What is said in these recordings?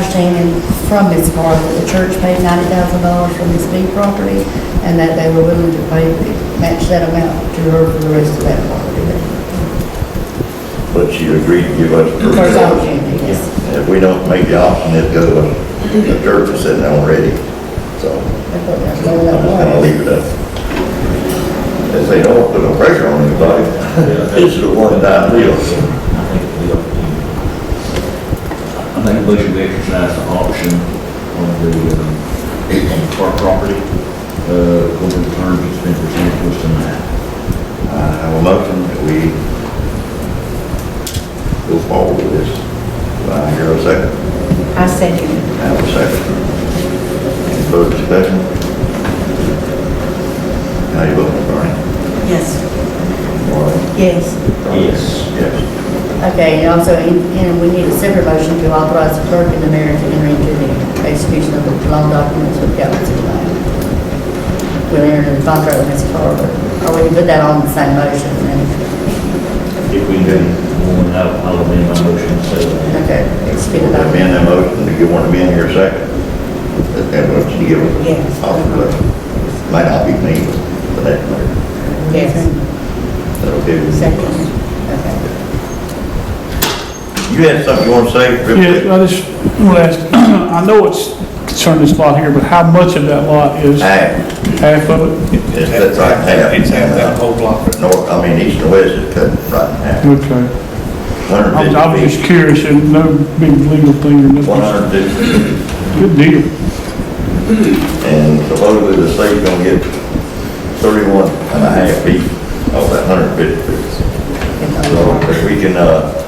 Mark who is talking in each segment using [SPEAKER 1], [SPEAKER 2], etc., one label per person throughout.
[SPEAKER 1] understanding from Ms. Carr that the church paid ninety thousand dollars for Ms. B property, and that they were willing to pay, match that amount to her for the rest of that property.
[SPEAKER 2] But you agreed to give us
[SPEAKER 1] First
[SPEAKER 2] first option.
[SPEAKER 1] opportunity, yes.
[SPEAKER 2] If we don't make the option, it goes to the church is sitting there already. So
[SPEAKER 1] That's what they're
[SPEAKER 2] I'm
[SPEAKER 1] saying, that
[SPEAKER 2] just gonna
[SPEAKER 1] was.
[SPEAKER 2] leave it up. They say, don't put no pressure on anybody. This is a one-time deal.
[SPEAKER 3] I think we ought to. I think we should exercise the option on the, um, on the park property, uh, over the terms that's been presented to us tonight.
[SPEAKER 2] I have a motion that we go forward with this. Do I hear a second?
[SPEAKER 1] I second.
[SPEAKER 2] I Have a second. Any further discussion? How you voting, Bernie?
[SPEAKER 1] Yes.
[SPEAKER 2] Warren?
[SPEAKER 1] Yes.
[SPEAKER 3] Yes.
[SPEAKER 2] Yes.
[SPEAKER 1] Okay, and also, in- and we need a separate motion to authorize the clerk and the mayor to enter into the execution of the loan documents with Galveston City Bank. We'll enter into contract with Ms. Carr, but- or we can put that on the same motion, and,
[SPEAKER 3] If we do, one, I'll, I'll amend my motion, so.
[SPEAKER 1] okay, execute it
[SPEAKER 2] Let
[SPEAKER 1] on.
[SPEAKER 2] me in that motion, do you want to be in here a second? That that motion to give us.
[SPEAKER 1] Yes.
[SPEAKER 2] Yes. Might not be me, but that,
[SPEAKER 1] Yes,
[SPEAKER 2] that'll do.
[SPEAKER 1] second, okay.
[SPEAKER 2] You had something you want to say? Rip?
[SPEAKER 4] Yeah, I just want to ask, I know it's concerning this lot here, but how much of that lot is
[SPEAKER 2] Half,
[SPEAKER 4] half of it?
[SPEAKER 2] It's- that's like half.
[SPEAKER 5] It's half that whole block.
[SPEAKER 2] Uh, North, I mean, east and west is cut right in half.
[SPEAKER 4] Okay.
[SPEAKER 2] Hundred
[SPEAKER 4] I was, I was
[SPEAKER 2] fifty
[SPEAKER 4] just curious, and no big legal thing or
[SPEAKER 2] feet, one
[SPEAKER 4] nothing.
[SPEAKER 2] hundred fifty,
[SPEAKER 4] Good deal.
[SPEAKER 2] and supposedly the state's gonna get thirty-one and a half feet of that hundred fifty feet. So if we can, uh,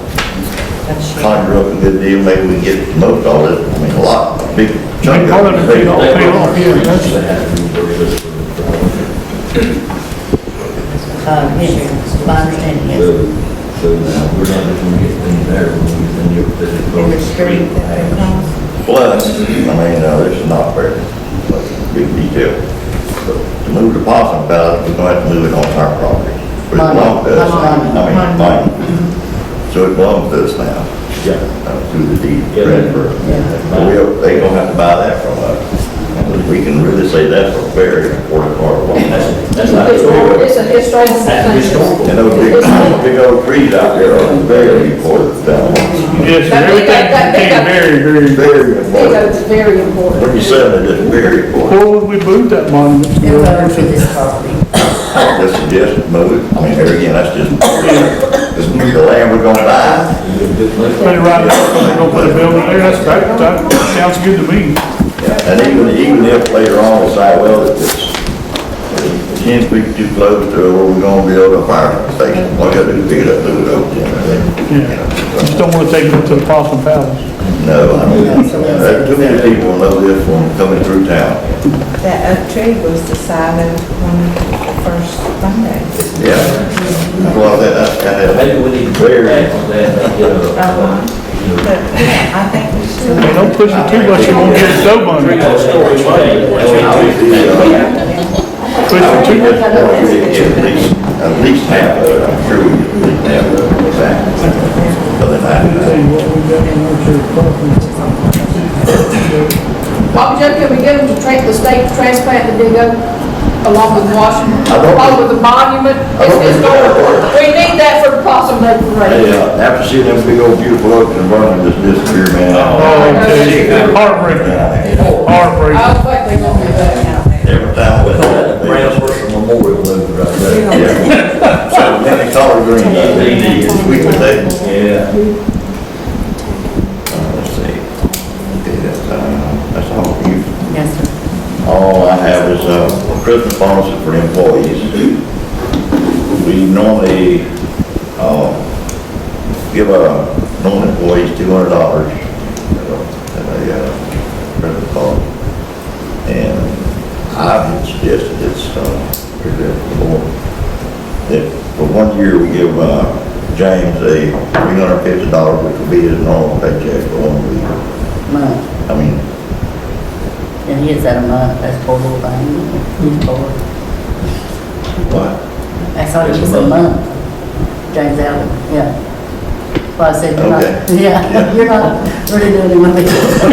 [SPEAKER 2] conjure up a good deal, maybe we can get most all this, I mean, a lot, a big chunk
[SPEAKER 4] All of
[SPEAKER 2] of
[SPEAKER 4] it,
[SPEAKER 2] it.
[SPEAKER 4] all paid off, yeah, that's-
[SPEAKER 3] They have to be reversed for the problem.
[SPEAKER 1] Uh, yes, my understanding
[SPEAKER 3] So,
[SPEAKER 1] is,
[SPEAKER 3] so now, we're not just gonna get things there, we're gonna get them up to the.
[SPEAKER 1] in the street.
[SPEAKER 2] Plus, I mean, uh, this is not very, like, big detail. But To move the possum ballot, we're gonna have to move it on our property. But it belongs to us, now. I mean, mine. So it belongs to us now,
[SPEAKER 3] Yeah.
[SPEAKER 2] uh, through the deed
[SPEAKER 3] Yeah.
[SPEAKER 2] transfer. But we, they gonna have to buy that from us. Because we can really say that's a very important part of what happened.
[SPEAKER 3] That's, that's not.
[SPEAKER 6] It's a
[SPEAKER 3] That's
[SPEAKER 6] historical thing.
[SPEAKER 3] historical.
[SPEAKER 2] And those big, big old trees out there are very important down there.
[SPEAKER 4] Yes, sir, everything became very, very,
[SPEAKER 2] Very important.
[SPEAKER 6] It's very
[SPEAKER 2] When
[SPEAKER 6] important.
[SPEAKER 2] you sell it, it's very important.
[SPEAKER 4] where would we move that monument?
[SPEAKER 1] It was over to
[SPEAKER 4] to?
[SPEAKER 1] this property.
[SPEAKER 2] I would suggest move it, I mean, there again, that's just, this new land we're gonna buy.
[SPEAKER 4] Put it right there, they gonna put a building there, that's great, that sounds good to me.
[SPEAKER 2] And even, even if later on we decide, well, if it's ten feet too close to where we're gonna build a fire station, what gotta do, pick it up, move it over there.
[SPEAKER 4] Just don't want to take it to the Possum Palace.
[SPEAKER 2] No, I mean, there are too many people know this one coming through town.
[SPEAKER 7] That oak tree was decided on the first Monday.
[SPEAKER 2] Yeah. Well, that, that's kind
[SPEAKER 3] Maybe we need to
[SPEAKER 2] Very.
[SPEAKER 3] clear that, on that, and get a, uh, you know.
[SPEAKER 7] But I think we still.
[SPEAKER 4] Hey, Don't push it too much, you won't get a dough money.
[SPEAKER 3] Storage bay.
[SPEAKER 2] of.
[SPEAKER 4] Push it too much.
[SPEAKER 2] At least, at least half of it, I'm sure we get at least half of it, exactly. Other than that.
[SPEAKER 6] Bob Joe, can we get them to tra- the state to transplant the big oak along with Washington,
[SPEAKER 2] I don't-
[SPEAKER 6] along with the monument?
[SPEAKER 2] I
[SPEAKER 6] It's
[SPEAKER 2] don't think that'll
[SPEAKER 6] historical.
[SPEAKER 2] work.
[SPEAKER 6] We need that for the possum day
[SPEAKER 2] Hey,
[SPEAKER 6] parade.
[SPEAKER 2] uh, after seeing them big old beautiful oaks in Vernon just disappear, man.
[SPEAKER 4] Oh, okay. heartbreaking, heartbreaking.
[SPEAKER 6] I was like, they're gonna do that.
[SPEAKER 2] Every time with that.
[SPEAKER 3] Brown's Worship Memorial over right there.
[SPEAKER 2] Yeah. So many color green, uh, they need to sweep with that.
[SPEAKER 3] Yeah.
[SPEAKER 2] Uh, Let's see. Okay, that's, uh, that's all you.
[SPEAKER 1] Yes, sir.
[SPEAKER 2] All I have is, uh, Christmas bonuses for employees. We normally, uh, give, uh, normal employees two hundred dollars at a, at a, uh, Christmas bonus. And I've suggested it's, uh, pretty good for the board. That for one year, we give, uh, James a three hundred fifty dollars, which would be his normal paycheck for one week.
[SPEAKER 1] Month,
[SPEAKER 2] I mean,
[SPEAKER 1] and he is at a month, that's poor little thing, he's poor.
[SPEAKER 2] what?
[SPEAKER 1] That's all it is, a month. James Allen, yeah. Well, I said, you're
[SPEAKER 2] Okay.
[SPEAKER 1] not, yeah, you're not really doing anything.